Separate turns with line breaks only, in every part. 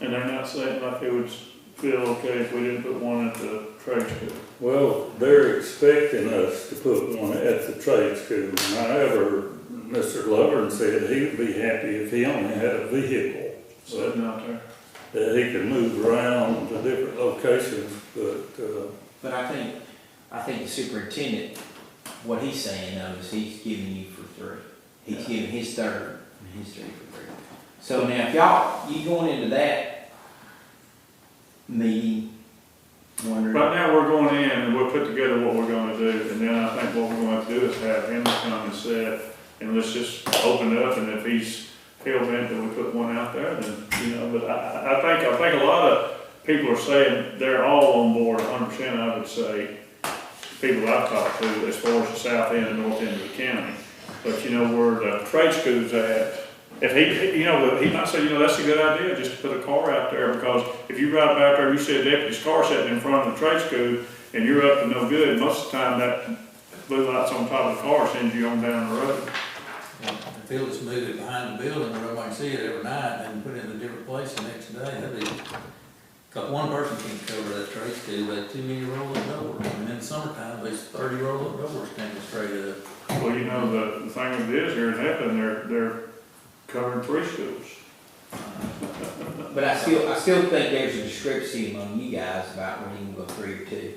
And they're not saying like they would feel okay if we didn't put one at the trade school.
Well, they're expecting us to put one at the trade school. However, Mr. Lovern said he would be happy if he only had a vehicle
sitting out there.
that he could move around to different locations, but, uh,
But I think, I think the superintendent, what he's saying though is he's giving you for three. He's giving his third and his three for three. So now if y'all, you going into that meeting wondering,
Right now, we're going in and we'll put together what we're gonna do, and then I think what we're gonna have to do is have him come and set, and let's just open it up, and if he's hell bent that we put one out there, then, you know, but I, I I think, I think a lot of people are saying they're all on board hundred percent, I would say. People I've talked to as far as the south end and north end of the county, but you know, where the trade school's at, if he, you know, he might say, you know, that's a good idea, just to put a car out there, because if you ride back there, you see a deputy's car sitting in front of the trade school, and you're up to no good, most of the time that blue light's on top of the car sends you on down the road.
If they just move it behind the building where everybody can see it every night and put it in a different place the next day, that'd be, cause one person can't cover that trade school, but too many roll-up doors. And in the summertime, there's thirty roll-up doors standing straight up.
Well, you know, the, the thing of it is, here in Hampton, they're, they're covering three schools.
but I still, I still think there's a discrepancy among you guys about when you can go three or two.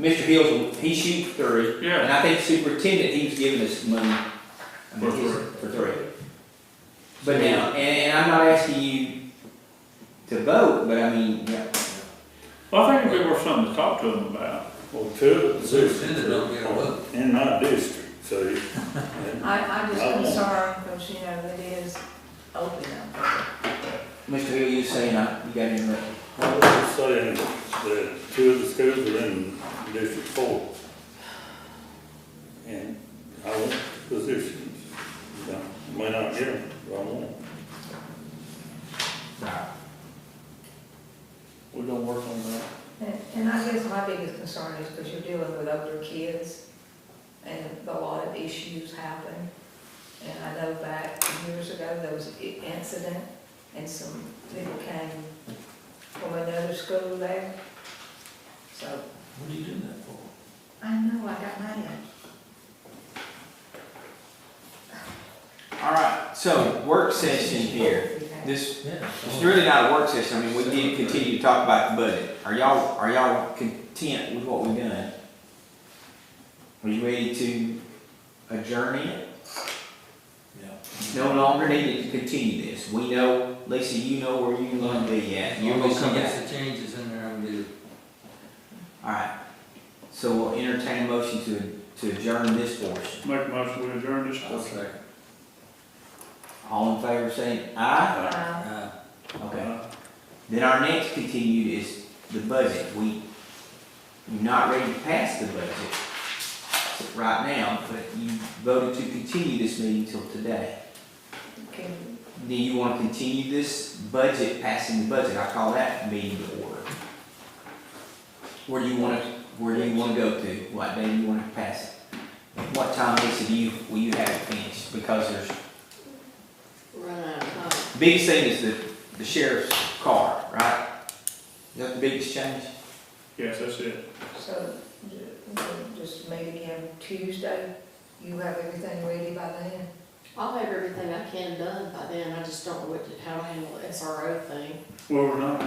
Mr. Hills, he shoots three, and
Yeah,
I think superintendent, he was giving us money, I mean,
For
his-
three.
for three. But now, and, and I'm not asking you to vote, but I mean, yeah,
well, I think it'd be worth something to talk to them about.
well, two of the positions
Superintendent don't get a
are
vote.
in my district, see?
I, I'm just
I won't.
concerned, because, you know, it is open up.
Mr. Hill, you saying, I, you got interrupted.
I was saying that two of the schools are in District Four. And I want positions, I may not get them, but I want 'em.
We're gonna work on that.
And, and I guess my biggest concern is because you're dealing with older kids, and a lot of issues happen. And I know back years ago, there was an incident, and some people came from another school there. So,
What are you doing that for?
I know, I got mad.
All right, so work session here, this,
Yeah.
it's really not a work session, I mean, we did continue to talk about the budget. Are y'all, are y'all content with what we've done? Are you ready to adjourn it?
Yeah.
no longer needed to continue this. We know, Lisa, you know where you're gonna be at. You're gonna
Obviously,
come
there's
back.
some changes in there, I'm gonna do.
Alright, so we'll entertain a motion to, to adjourn this portion.
Make a motion, we adjourn this.
I'll second.
All in favor saying aye?
Um,
Uh,
Okay. Then our next continued is the budget. We, you're not ready to pass the budget right now, but you voted to continue this meeting till today.
can-
Do you wanna continue this budget, passing the budget? I call that meeting to order. Where do you wanna, where do you wanna go to? What day do you wanna pass it? What time, Lisa, do you, will you have it finished? Because there's,
run out of time.
biggest thing is the, the sheriff's car, right? Is that the biggest change?
Yes, that's it.
So, ju- ju- just meet again Tuesday, you have everything ready by then?
I'll have everything I can done by then, I just don't know what, to- how to handle the SRO thing.
Well, we're not, we're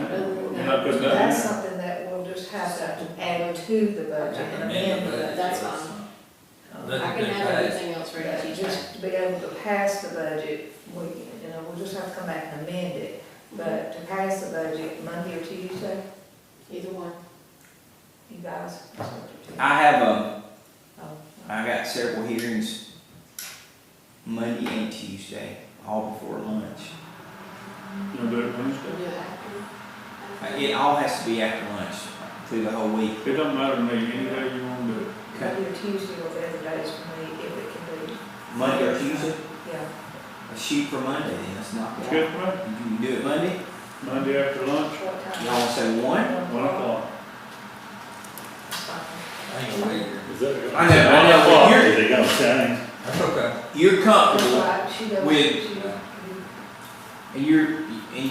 not putting that
That's
in.
something that we'll just have to add to the budget and
amend
amend
the budget.
it.
That's fine. I
Nothing
can
been
have
passed.
everything else
But
ready Tuesday.
Um, Just to be able to pass the budget, we, you know, we'll just have to come back and amend it. But to pass the budget Monday or Tuesday,
Either one.
you guys.
I have, um,
Oh,
I got several hearings Monday and Tuesday, all before lunch.
You'll do it Wednesday.
We'll do it after.
It all has to be after lunch through the whole week.
It doesn't matter to me, any day you wanna do it.
Monday or Tuesday or whatever days for me, if it can be,
Monday or Tuesday?
yeah.
Let's shoot for Monday, then let's knock
It's
it
good
out.
for me.
You can do it Monday,
Monday after lunch,
What
y'all
time?
wanna say one?
one o'clock.
I ain't gonna wait here.
Is that gonna-
I know, I know, but you're-
Is it gonna change?
That's okay.
You're
That's
comfortable,
right, she don't-
With-
she don't-
and you're,